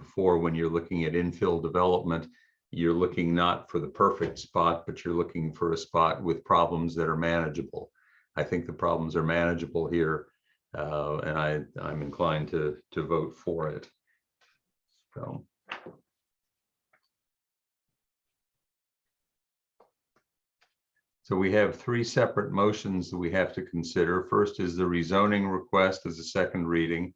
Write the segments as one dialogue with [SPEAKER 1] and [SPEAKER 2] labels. [SPEAKER 1] before, when you're looking at infill development, you're looking not for the perfect spot, but you're looking for a spot with problems that are manageable. I think the problems are manageable here, uh, and I, I'm inclined to, to vote for it. So. So we have three separate motions that we have to consider. First is the rezoning request as a second reading.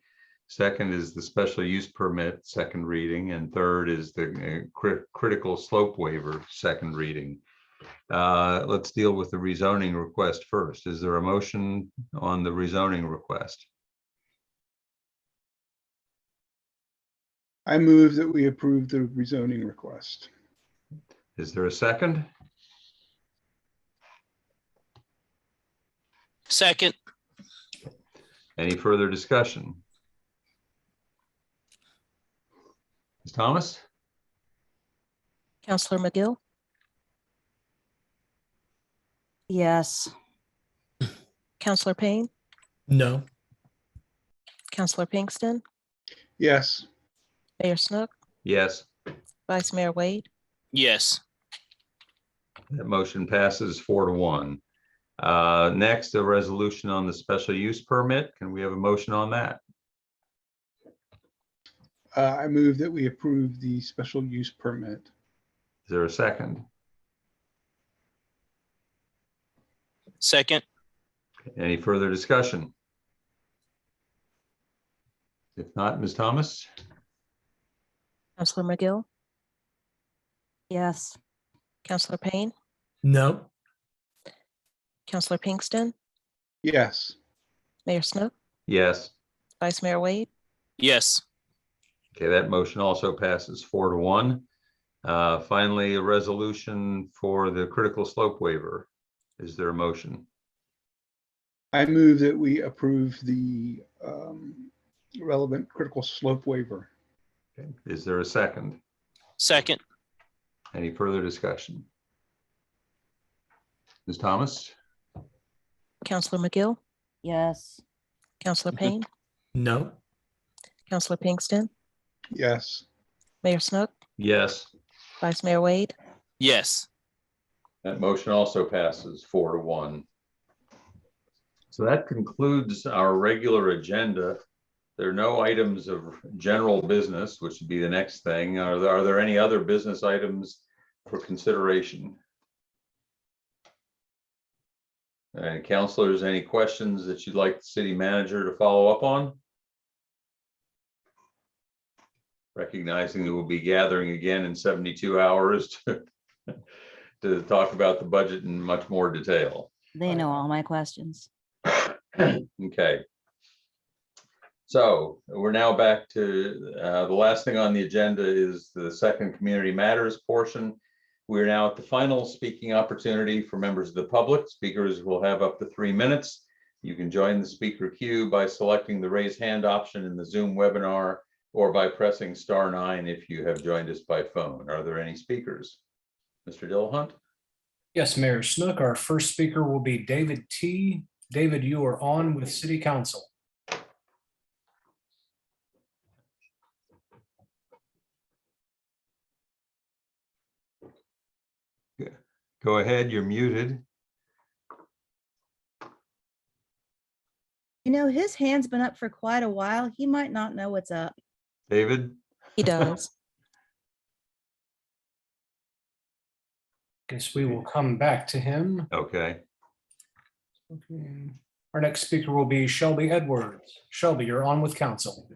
[SPEAKER 1] Second is the special use permit, second reading, and third is the uh, cri- critical slope waiver, second reading. Uh, Let's deal with the rezoning request first. Is there a motion on the rezoning request?
[SPEAKER 2] I move that we approve the rezoning request.
[SPEAKER 1] Is there a second?
[SPEAKER 3] Second,
[SPEAKER 1] Any further discussion? Ms. Thomas?
[SPEAKER 4] Counselor McGill? Yes. Counselor Payne?
[SPEAKER 5] No.
[SPEAKER 4] Counselor Pinkston?
[SPEAKER 2] Yes,
[SPEAKER 4] Mayor Snook?
[SPEAKER 1] Yes,
[SPEAKER 4] Vice Mayor Wade?
[SPEAKER 3] yes,
[SPEAKER 1] that motion passes four to one. Uh, Next, a resolution on the special use permit. Can we have a motion on that?
[SPEAKER 2] uh, I move that we approve the special use permit.
[SPEAKER 1] Is there a second?
[SPEAKER 3] second,
[SPEAKER 1] Any further discussion? If not, Ms. Thomas?
[SPEAKER 4] Counselor McGill? Yes. Counselor Payne?
[SPEAKER 5] No.
[SPEAKER 4] Counselor Pinkston?
[SPEAKER 2] Yes,
[SPEAKER 4] Mayor Snook?
[SPEAKER 1] Yes.
[SPEAKER 4] Vice Mayor Wade?
[SPEAKER 3] yes,
[SPEAKER 1] Okay, that motion also passes four to one. Uh, Finally, a resolution for the critical slope waiver. Is there a motion?
[SPEAKER 2] I move that we approve the um, relevant critical slope waiver.
[SPEAKER 1] Okay, Is there a second?
[SPEAKER 3] second,
[SPEAKER 1] Any further discussion? Ms. Thomas?
[SPEAKER 4] Counselor McGill?
[SPEAKER 6] yes,
[SPEAKER 4] Counselor Payne?
[SPEAKER 5] No.
[SPEAKER 4] Counselor Pinkston?
[SPEAKER 2] Yes,
[SPEAKER 4] Mayor Snook?
[SPEAKER 1] Yes.
[SPEAKER 4] Vice Mayor Wade?
[SPEAKER 3] yes,
[SPEAKER 1] That motion also passes four to one. So that concludes our regular agenda. There are no items of general business, which would be the next thing. Are there, are there any other business items for consideration? And counselors, any questions that you'd like the city manager to follow up on? Recognizing that we'll be gathering again in 72 hours to to talk about the budget in much more detail.
[SPEAKER 6] they know all my questions.
[SPEAKER 1] Okay. So we're now back to, uh, the last thing on the agenda is the second community matters portion. We're now at the final speaking opportunity for members of the public. Speakers will have up to three minutes. You can join the speaker queue by selecting the raise hand option in the Zoom webinar or by pressing star nine if you have joined us by phone. Are there any speakers? Mr. Dillahunt?
[SPEAKER 7] Yes, Mayor Snook, our first speaker will be David T. David, you are on with City Council.
[SPEAKER 1] Go ahead, you're muted.
[SPEAKER 8] You know, his hand's been up for quite a while. He might not know what's up.
[SPEAKER 1] David?
[SPEAKER 4] He does.
[SPEAKER 7] Guess we will come back to him.
[SPEAKER 1] Okay.
[SPEAKER 7] Okay. Our next speaker will be Shelby Edwards. Shelby, you're on with council.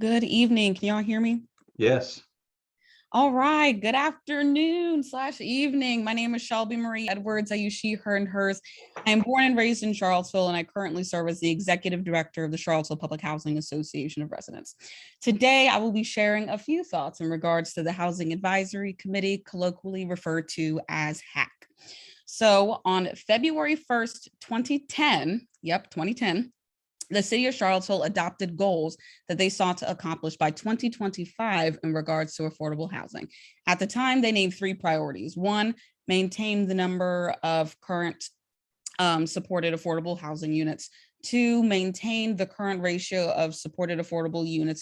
[SPEAKER 9] Good evening. Can y'all hear me?
[SPEAKER 1] Yes.
[SPEAKER 9] All right. Good afternoon slash evening. My name is Shelby Marie Edwards. I use she, her, and hers. I am born and raised in Charlottesville, and I currently serve as the executive director of the Charlottesville Public Housing Association of Residents. Today, I will be sharing a few thoughts in regards to the Housing Advisory Committee, colloquially referred to as HAC. So on February 1st, 2010, yep, 2010, the city of Charlottesville adopted goals that they sought to accomplish by 2025 in regards to affordable housing. At the time, they named three priorities. One, maintain the number of current um, supported affordable housing units. Two, maintain the current ratio of supported affordable units